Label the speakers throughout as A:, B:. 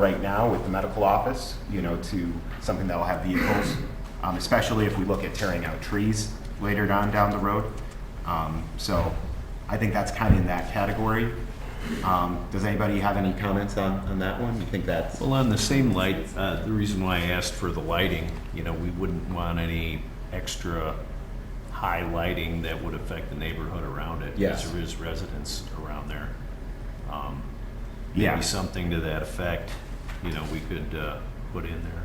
A: right now with the medical office, you know, to something that will have vehicles, um, especially if we look at tearing out trees later down, down the road. Um, so I think that's kind of in that category. Um, does anybody have any comments on, on that one? You think that's,
B: Well, on the same light, uh, the reason why I asked for the lighting, you know, we wouldn't want any extra high lighting that would affect the neighborhood around it. 'cause
A: Yes.
B: There is residents around there. Um,
A: yeah,
B: Maybe something to that effect, you know, we could uh, put in there.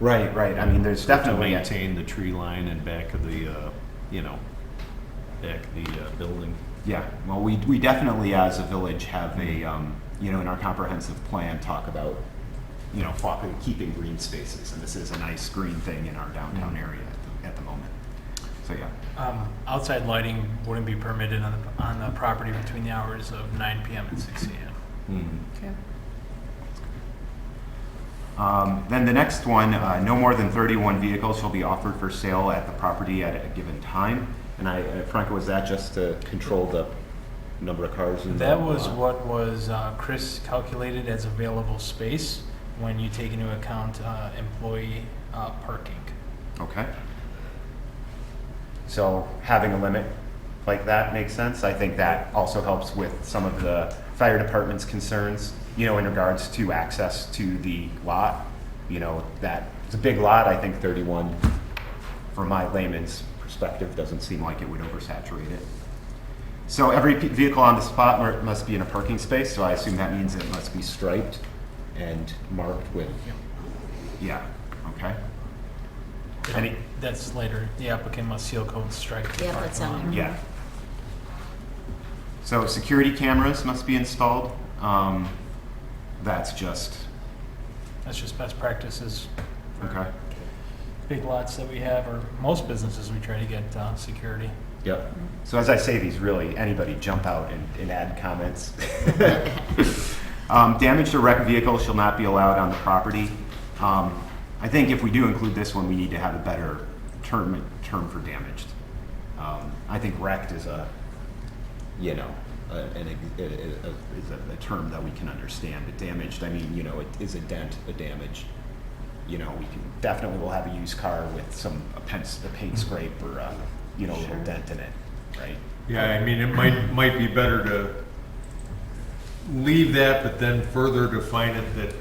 A: right, right. I mean, there's
B: To
A: definitely, a-
B: maintain the tree line and back of the, uh, you know, back of the uh, building.
A: yeah, well, we, we definitely as a village have a, um, you know, in our comprehensive plan, talk about, you know, fo- keeping green spaces. And this is a nice green thing in our downtown area at the- at the moment. So, yeah.
C: Um, Outside lighting wouldn't be permitted on the, on the property between the hours of 9 PM and 6 AM.
D: Okay.
A: Um, Then the next one, uh, no more than 31 vehicles shall be offered for sale at the property at a given time. And I, uh, Franco, was that just to control the number of cars? in the
C: That was
A: lot?
C: what was, uh, Chris calculated as available space when you take into account uh, employee uh, parking.
A: Okay. So having a limit like that makes sense. I think that also helps with some of the fire department's concerns, you know, in regards to access to the lot. You know, that, it's a big lot, I think 31, from my layman's perspective, doesn't seem like it would oversaturate it. So every pe- vehicle on the spot mer- must be in a parking space, so I assume that means it must be striped and marked with, yeah, okay. Any-
C: That's later, the applicant must seal code strike the
D: Yeah,
C: parking
D: that's on
C: lot.
D: there.
A: Yeah. So security cameras must be installed. Um, that's just,
C: That's just best practices. for
A: okay.
C: Big lots that we have, or most businesses, we try to get uh, security.
A: Yep. So as I say these, really, anybody jump out and, and add comments. Um, damaged or wrecked vehicles shall not be allowed on the property. Um, I think if we do include this one, we need to have a better term, term for damaged. Um, I think wrecked is a, you know, a, an, ex- a, a, a- is a, a term that we can understand. But damaged, I mean, you know, it is a dent, a damage. You know, we can definitely will have a used car with some a paint, a paint scrape or a, you know, a little
D: Mm-hmm. Sure.
A: dent in it, right?
E: Yeah, I mean, it might, might be better to leave that, but then further define it that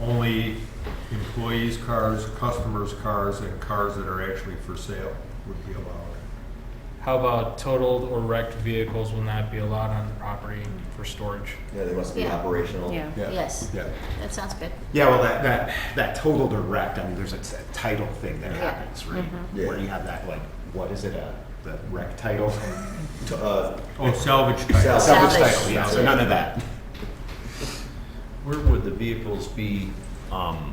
E: only employees' cars, customers' cars, and cars that are actually for sale would be allowed.
C: How about totaled or wrecked vehicles will not be allowed on the property for storage?
F: Yeah, they must be
D: Yeah.
F: operational.
D: Yeah, yes,
E: Yeah.
D: that sounds good.
A: Yeah, well, that, that, that total direct, I mean, there's a t- a title thing that
D: Yeah. Mm-hmm.
A: happens, right?
F: Yeah.
A: Where you have that, like, what is it, uh, the rec title?
F: To, uh,
E: Oh, salvage type.
F: Sal-
A: Salvage
D: Salvage.
A: title, yeah, so none of that.
B: Where would the vehicles be um,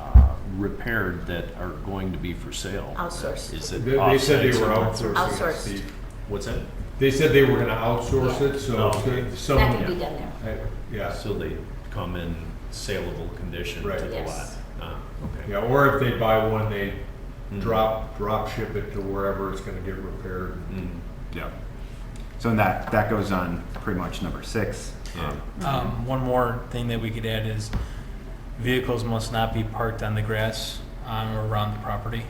B: uh, repaired that are going to be for sale?
D: Outsourced.
B: Is
E: They
B: it
E: they said
B: offsite
E: they were
B: somewhere?
E: outsourcing it,
D: Outsourced.
E: Steve.
B: What's that?
E: They said they were gonna outsource it, so
B: Oh, okay.
D: That
E: someone,
D: could be done there.
E: yeah,
B: So they come in saleable condition to
E: Right.
B: the lot?
D: Yes.
B: Ah, okay.
E: yeah, or if they buy one, they drop, drop ship it to wherever it's gonna get repaired.
B: Mm,
A: Yeah. So that, that goes on pretty much number six.
B: Yeah.
C: Um, one more thing that we could add is vehicles must not be parked on the grass on or around the property.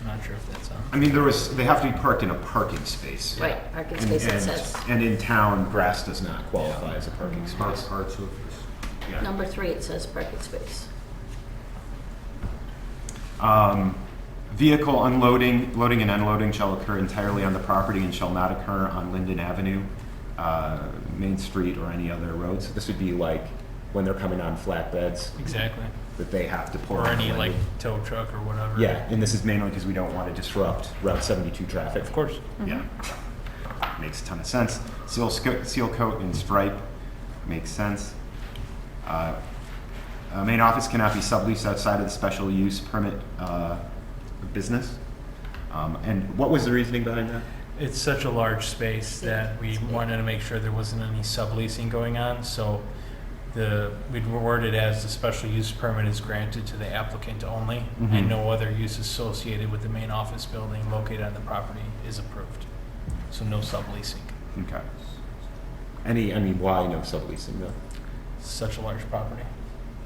C: I'm not sure if that's on.
A: I mean, there was, they have to be parked in a parking space.
D: Right, parking
A: And-
D: space, it
A: and-
D: says. Mm-hmm.
A: And in town, grass does not qualify as a parking
E: Parts,
A: space.
E: parts of this.
A: Yeah.
D: Number three, it says parking space.
A: Um, Vehicle unloading, loading and unloading shall occur entirely on the property and shall not occur on Linden Avenue, uh, Main Street, or any other road. So this would be like when they're coming on flatbeds,
C: Exactly.
A: that they have to pour.
C: Or
A: on
C: any
A: the
C: like
A: Linden.
C: tow truck or whatever.
A: Yeah, and this is mainly because we don't want to disrupt Route 72 traffic.
C: Of course.
A: Yeah. Makes a ton of sense. Seal, sco- seal coat and stripe makes sense. Uh, uh, main office cannot be subleased outside of the special use permit uh, business. Um, and what was the reasoning behind that?
C: It's such a large space that we wanted to make sure there wasn't any subleasing going on, so the, we'd word it as the special use permit is granted to the applicant only,
A: Mhm.
C: and no other use associated with the main office building located on the property is approved. So no subleasing.
A: Okay. Any, I mean, why no subleasing though?
C: Such a large property.